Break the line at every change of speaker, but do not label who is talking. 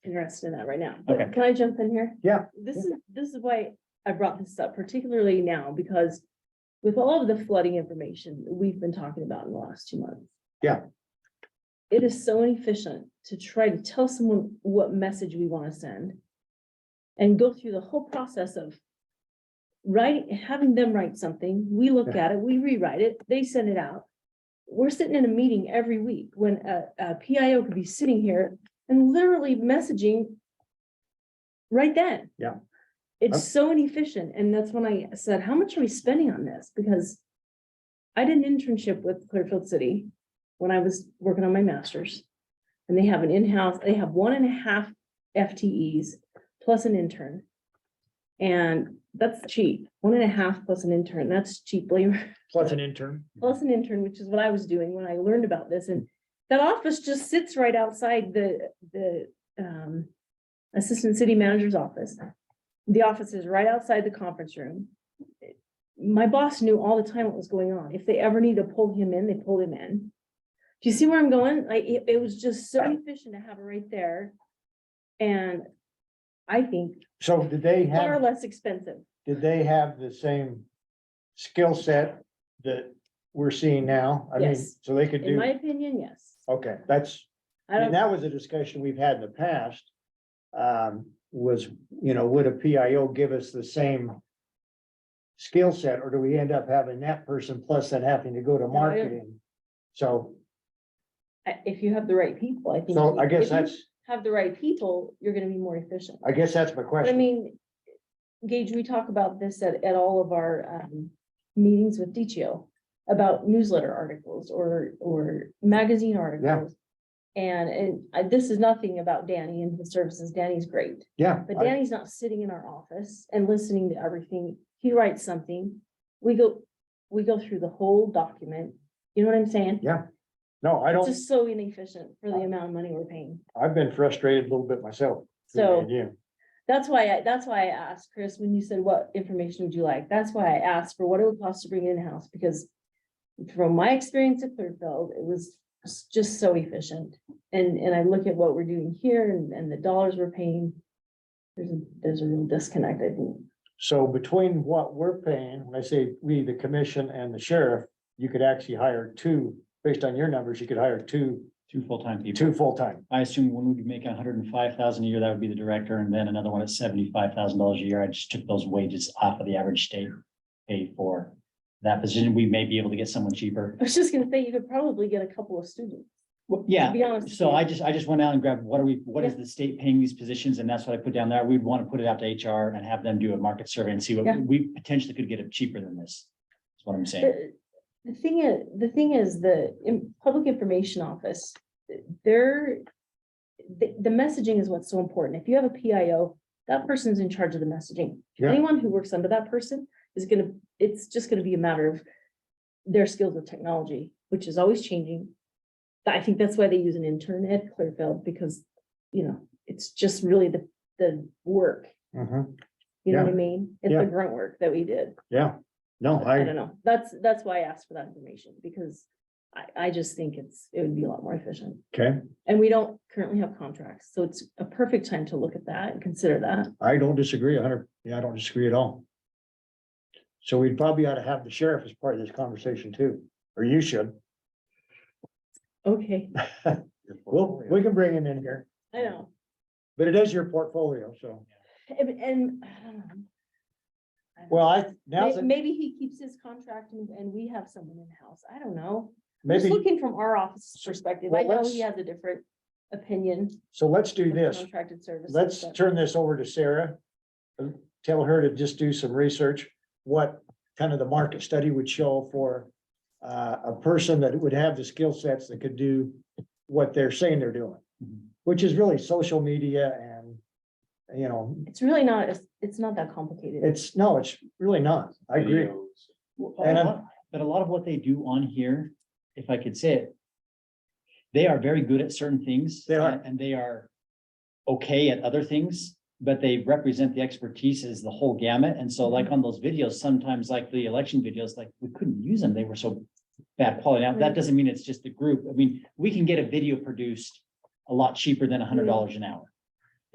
interested in that right now.
Okay.
Can I jump in here?
Yeah.
This is, this is why I brought this up particularly now, because with all of the flooding information that we've been talking about in the last two months.
Yeah.
It is so inefficient to try to tell someone what message we want to send. And go through the whole process of writing, having them write something, we look at it, we rewrite it, they send it out. We're sitting in a meeting every week when a, a PIO could be sitting here and literally messaging right then.
Yeah.
It's so inefficient, and that's when I said, how much are we spending on this? Because I did an internship with Clearfield City when I was working on my master's. And they have an in-house, they have one and a half FTEs plus an intern. And that's cheap, one and a half plus an intern, that's cheap labor
Plus an intern.
plus an intern, which is what I was doing when I learned about this, and that office just sits right outside the, the, um, assistant city manager's office. The office is right outside the conference room. My boss knew all the time what was going on. If they ever needed to pull him in, they pulled him in. Do you see where I'm going? Like, it, it was just so efficient to have it right there. And I think
So did they
far
have,
less expensive.
did they have the same skill set that we're seeing now? I mean,
Yes.
so they could
In my
do, Oh,
opinion, yes.
okay, that's,
I
and
don't,
that was a discussion we've had in the past. Um, was, you know, would a PIO give us the same skill set, or do we end up having that person plus then having to go
Oh,
to marketing? So,
I- if you have the right people, I think.
so I guess
if you
that's,
have the right people, you're gonna be more efficient.
I guess that's my
But I
question.
mean, Gage, we talk about this at, at all of our, um, meetings with DTO about newsletter articles or, or magazine articles. And, and I- this is nothing about Danny and his services. Danny's great,
Yeah.
but
I-
Danny's not sitting in our office and listening to everything. He writes something. We go, we go through the whole document. You know what I'm saying?
Yeah, No, I
It's
don't, Uh,
just so inefficient for the amount of money we're paying.
I've been frustrated a little bit myself.
So.
Yeah.
That's why, I that's why I asked Chris, when you said what information would you like? That's why I asked for what it would cost to bring it in-house, because from my experience at Clearfield, it was s- just so efficient. And, and I look at what we're doing here and, and the dollars we're paying. There's, a there's a real disconnect, I think.
So between what we're paying, when I say we, the commission and the sheriff, you could actually hire two, based on your numbers, you could hire two,
Two full-time people.
two full-time.
I assume one would make hundred and five thousand a year, that would be the director, and then another one at seventy-five thousand dollars a year. I just took those wages off of the average state pay for that position. We may be able to get someone cheaper.
I was just gonna say, you could probably get a couple of students,
Well,
to
yeah,
be honest. with
so
you.
I just, I just went out and grabbed, what are we, what is the state paying these positions? And that's what I put down there. We'd want to put it out to HR and have them do a market survey and see
Yeah.
what we potentially could get it cheaper than this. That's what I'm saying.
The the thing is, the thing is, the in- public information office, they're. The, the messaging is what's so important. If you have a PIO, that person's in charge of the messaging.
Yeah.
Anyone who works under that person is gonna, it's just gonna be a matter of. Their skills with technology, which is always changing. But I think that's why they use an intern at Clearfield, because, you know, it's just really the, the work,
Mhm.
you know what I mean? It's
Yeah.
the grunt work that we did.
Yeah, no,
I don't
I,
know. That's, that's why I asked for that information, because I, I just think it's, it would be a lot more efficient.
okay,
And we don't currently have contracts, so it's a perfect time to look at that and consider that.
I don't disagree a hundred, yeah, I don't disagree at all. So we'd probably ought to have the sheriff as part of this conversation too, or you should.
Okay,
Well, we can bring him in here,
I know.
but it is your portfolio, so.
And, and, I don't know.
Well, I, now's,
May-
the-
Maybe he keeps his contract and, and we have someone in-house. I don't know. I'm Just
maybe,
looking from our office perspective, I
Well,
know
let's-
he has a different opinion.
so let's do
of
this.
Contracted services.
Let's
but-
turn this over to Sarah. and Tell her to just do some research, what kind of the market study would show for uh, a person that would have the skill sets that could do what they're saying they're doing,
Mhm.
which is really social media and, you know,
It's really not, it's, it's not that complicated.
it's, no, it's really not. I agree.
Well,
And
a
I'm-
lot- But a lot of what they do on here, if I could say it, they are very good at certain things.
They are.
and- And they are okay at other things, but they represent the expertise as the whole gamut. And so
Mm-hmm.
like on those videos, sometimes like the election videos, like we couldn't use them. They were so bad quality. Now,
Right.
Mm-hmm.
that
Mm-hmm.
doesn't mean it's just the group. I mean, we can get a video produced a lot cheaper than a hundred dollars an hour.